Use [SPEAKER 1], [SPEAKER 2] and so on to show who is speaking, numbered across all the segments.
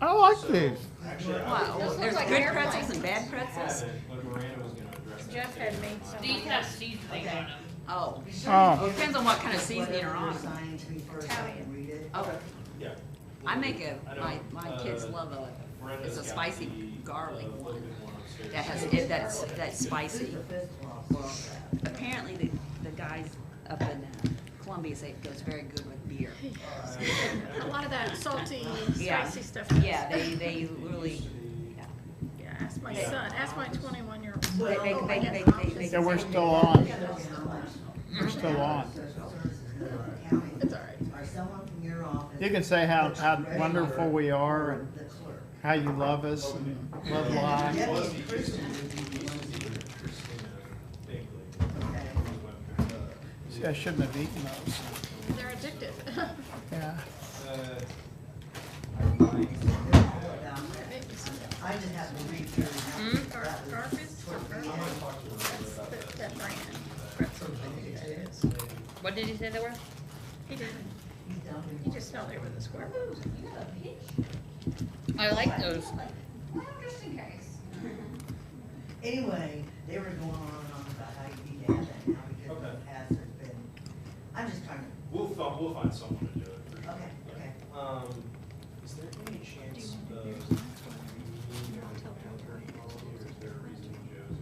[SPEAKER 1] I like this.
[SPEAKER 2] Actually, I
[SPEAKER 3] Wow,
[SPEAKER 2] would-
[SPEAKER 3] there's good pretzels and bad pretzels?
[SPEAKER 2] Yeah, but Miranda was gonna address that.
[SPEAKER 4] Jeff had made some.
[SPEAKER 5] These have seasoning on them.
[SPEAKER 3] Oh,
[SPEAKER 1] Oh.
[SPEAKER 3] Well, depends on what kind of seasoning are on them.
[SPEAKER 6] Sign to me first, I can read it.
[SPEAKER 3] Okay,
[SPEAKER 2] Yeah.
[SPEAKER 3] I make a,
[SPEAKER 2] I
[SPEAKER 3] my,
[SPEAKER 2] don't-
[SPEAKER 3] my kids
[SPEAKER 2] uh,
[SPEAKER 3] love a,
[SPEAKER 2] Miranda's
[SPEAKER 3] it's a
[SPEAKER 2] got
[SPEAKER 3] spicy
[SPEAKER 2] the,
[SPEAKER 3] garlic
[SPEAKER 2] uh, little
[SPEAKER 3] one
[SPEAKER 2] bit more upstairs.
[SPEAKER 3] that has, it, that's, that's
[SPEAKER 6] This is
[SPEAKER 3] spicy.
[SPEAKER 6] the fifth loss.
[SPEAKER 3] Apparently, the, the guys up in uh, Columbia say it goes very good with beer.
[SPEAKER 4] A lot of that salty,
[SPEAKER 3] Yeah.
[SPEAKER 4] spicy stuff.
[SPEAKER 3] Yeah, they, they really, yeah.
[SPEAKER 4] Yeah, ask my son, ask my twenty-one year old.
[SPEAKER 3] They, they, they, they, they- they.
[SPEAKER 1] Yeah, we're still on. We're still on.
[SPEAKER 6] Social services in the county
[SPEAKER 4] It's all right.
[SPEAKER 6] Or someone from your office.
[SPEAKER 1] You can say how, how wonderful we are
[SPEAKER 6] Or
[SPEAKER 1] and
[SPEAKER 6] the clerk.
[SPEAKER 1] how you love us and love life.
[SPEAKER 2] Well, it used to be- it used to be Christina Bingley.
[SPEAKER 6] Okay.
[SPEAKER 1] See, I shouldn't have eaten those.
[SPEAKER 4] They're addictive.
[SPEAKER 1] Yeah.
[SPEAKER 2] Uh,
[SPEAKER 6] Down there. I just have to read through.
[SPEAKER 3] Hmm?
[SPEAKER 6] and
[SPEAKER 4] Gar- Garfus, Garfus,
[SPEAKER 2] talk to Miranda about
[SPEAKER 4] that,
[SPEAKER 2] that.
[SPEAKER 4] that brand. Pretzels, I think that is.
[SPEAKER 5] What did you say they were?
[SPEAKER 4] He didn't,
[SPEAKER 6] He's down here.
[SPEAKER 4] he just fell there with a square.
[SPEAKER 5] I like those.
[SPEAKER 6] Anyway, they were going on and on about how you need to have that, and how we could
[SPEAKER 2] Okay.
[SPEAKER 6] pass it, but I'm just trying to,
[SPEAKER 2] We'll, fi- we'll find someone to do it. for sure.
[SPEAKER 6] okay,
[SPEAKER 2] Yeah.
[SPEAKER 6] okay.
[SPEAKER 2] Um, is there any chance of, we need an attorney policy, or is there a reason Joe's?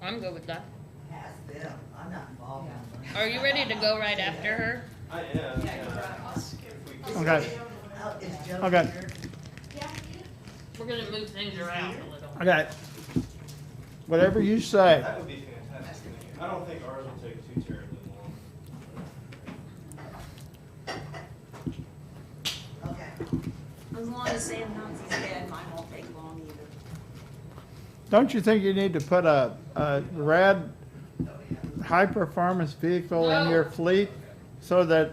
[SPEAKER 5] I'm good with that.
[SPEAKER 6] Pass them, I'm not involved in them.
[SPEAKER 5] Are you ready to go right after her?
[SPEAKER 2] I am, yeah. If we could-
[SPEAKER 1] Okay,
[SPEAKER 6] Oh, is Joe
[SPEAKER 1] Okay.
[SPEAKER 6] here?
[SPEAKER 5] We're gonna move things around a little.
[SPEAKER 1] okay. Whatever you say.
[SPEAKER 2] That would be fantastic. I don't think ours will take too terribly long.
[SPEAKER 6] Okay.
[SPEAKER 3] As long as Sam Nazis dead, mine won't take long either.
[SPEAKER 1] Don't you think you need to put a, a red high-performance vehicle in your
[SPEAKER 5] No.
[SPEAKER 1] fleet? So that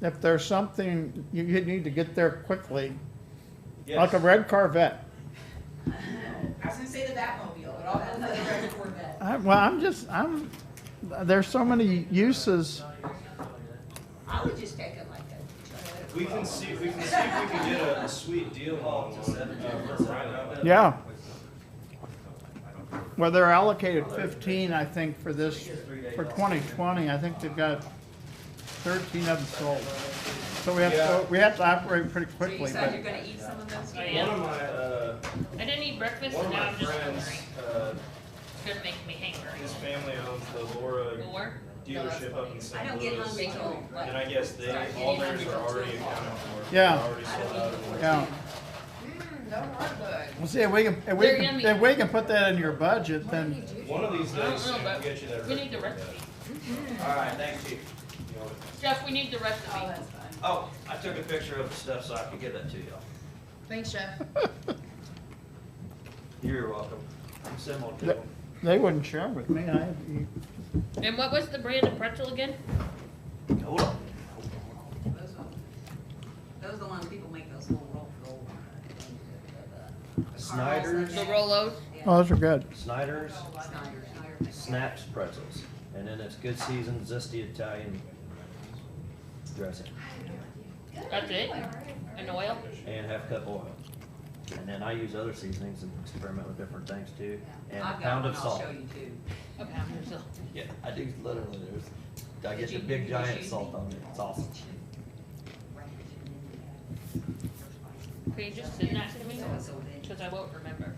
[SPEAKER 1] if there's something, you, you need to get there quickly, like a
[SPEAKER 2] Yes.
[SPEAKER 1] red Corvette.
[SPEAKER 7] I was gonna say the Batmobile, but all those other red Corvette.
[SPEAKER 1] I, well, I'm just, I'm, there's so many uses.
[SPEAKER 3] I would just take it like a.
[SPEAKER 2] We can see, we can see if we can get a sweet deal on one, uh, for Rhino.
[SPEAKER 1] Yeah. Well, they're allocated fifteen, I think, for this, for twenty twenty, I think they've got thirteen of them sold. So we have to, we have to operate pretty
[SPEAKER 3] So you
[SPEAKER 1] quickly,
[SPEAKER 3] said you're
[SPEAKER 1] but,
[SPEAKER 3] gonna eat some of those?
[SPEAKER 5] I
[SPEAKER 2] One of
[SPEAKER 5] am.
[SPEAKER 2] my, uh,
[SPEAKER 5] I didn't eat breakfast
[SPEAKER 2] one
[SPEAKER 5] and
[SPEAKER 2] of
[SPEAKER 5] now
[SPEAKER 2] my
[SPEAKER 5] I'm just
[SPEAKER 2] friends,
[SPEAKER 5] hungry.
[SPEAKER 2] uh,
[SPEAKER 5] It's gonna make me
[SPEAKER 2] his
[SPEAKER 5] hangry.
[SPEAKER 2] family owns the Laura
[SPEAKER 5] Or,
[SPEAKER 2] dealership up in
[SPEAKER 3] I
[SPEAKER 2] St.
[SPEAKER 3] don't get hungry
[SPEAKER 2] Louis.
[SPEAKER 3] till like.
[SPEAKER 2] And I guess they,
[SPEAKER 3] start getting
[SPEAKER 2] all theirs
[SPEAKER 3] hungry
[SPEAKER 2] are
[SPEAKER 3] till two
[SPEAKER 2] already
[SPEAKER 3] o'clock.
[SPEAKER 2] accounted for. They're
[SPEAKER 1] Yeah.
[SPEAKER 2] Already sold out. of the-
[SPEAKER 1] yeah.
[SPEAKER 7] Mmm, those are good.
[SPEAKER 1] Well, see, if we can, if we
[SPEAKER 5] They're
[SPEAKER 1] can,
[SPEAKER 5] yummy.
[SPEAKER 1] if we can put that in your budget, then,
[SPEAKER 2] One of these
[SPEAKER 5] I don't
[SPEAKER 2] days,
[SPEAKER 5] know,
[SPEAKER 2] Sam, we'll
[SPEAKER 5] but
[SPEAKER 2] get you that.
[SPEAKER 5] we need the
[SPEAKER 2] recipe.
[SPEAKER 5] recipe.
[SPEAKER 8] Alright, thank you.
[SPEAKER 2] You know it.
[SPEAKER 5] Jeff, we need the recipe.
[SPEAKER 7] Oh, that's fine.
[SPEAKER 8] Oh, I took a picture of the stuff so I could give that to y'all.
[SPEAKER 7] Thanks, Chef.
[SPEAKER 8] You're welcome. I'm similar to
[SPEAKER 1] Th-
[SPEAKER 8] them.
[SPEAKER 1] they wouldn't share with me, I have to eat.
[SPEAKER 5] And what was the brand of pretzel again?
[SPEAKER 8] Hold on.
[SPEAKER 3] Those ones. Those are the ones people make those little roll, roll. uh,
[SPEAKER 8] Snyder's,
[SPEAKER 5] The Rolos?
[SPEAKER 1] Oh, those are good.
[SPEAKER 8] Snyder's,
[SPEAKER 3] Snyder, Snyder.
[SPEAKER 8] Snaps pretzels, and then it's good seasoned zesty Italian dressing,
[SPEAKER 5] That's it? And oil?
[SPEAKER 8] and half cup oil. And then I use other seasonings and experiment with different things too, and a
[SPEAKER 3] I've got
[SPEAKER 8] pound
[SPEAKER 3] one,
[SPEAKER 8] of
[SPEAKER 3] I'll
[SPEAKER 8] salt.
[SPEAKER 3] show you too.
[SPEAKER 5] A pound or so.
[SPEAKER 8] Yeah, I do, literally, there's, I get the
[SPEAKER 3] Did you-
[SPEAKER 8] big
[SPEAKER 3] did
[SPEAKER 8] giant
[SPEAKER 3] you-
[SPEAKER 8] salt on it, it's awesome.
[SPEAKER 5] Can you just send that to me?
[SPEAKER 3] So then-
[SPEAKER 5] Cause I won't remember.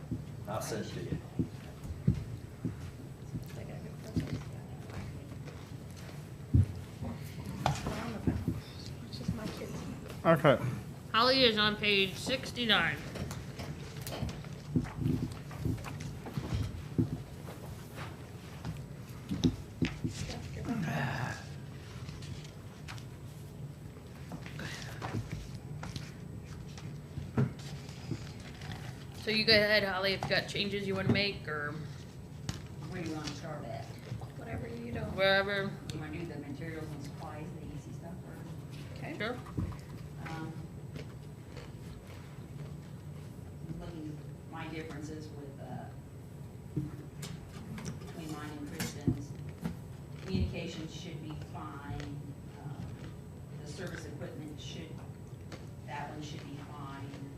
[SPEAKER 8] I'll send it to you.
[SPEAKER 4] It's just my kids.
[SPEAKER 1] Okay.
[SPEAKER 5] Holly is on page sixty-nine. So you go ahead, Holly, if you got changes you wanna make or
[SPEAKER 3] Where do you wanna start at?
[SPEAKER 4] Whatever you don't.
[SPEAKER 5] wherever,
[SPEAKER 3] You wanna do the materials and supplies, the easy stuff, or,
[SPEAKER 4] Okay.
[SPEAKER 5] sure?
[SPEAKER 3] um, looking, my differences were uh, um,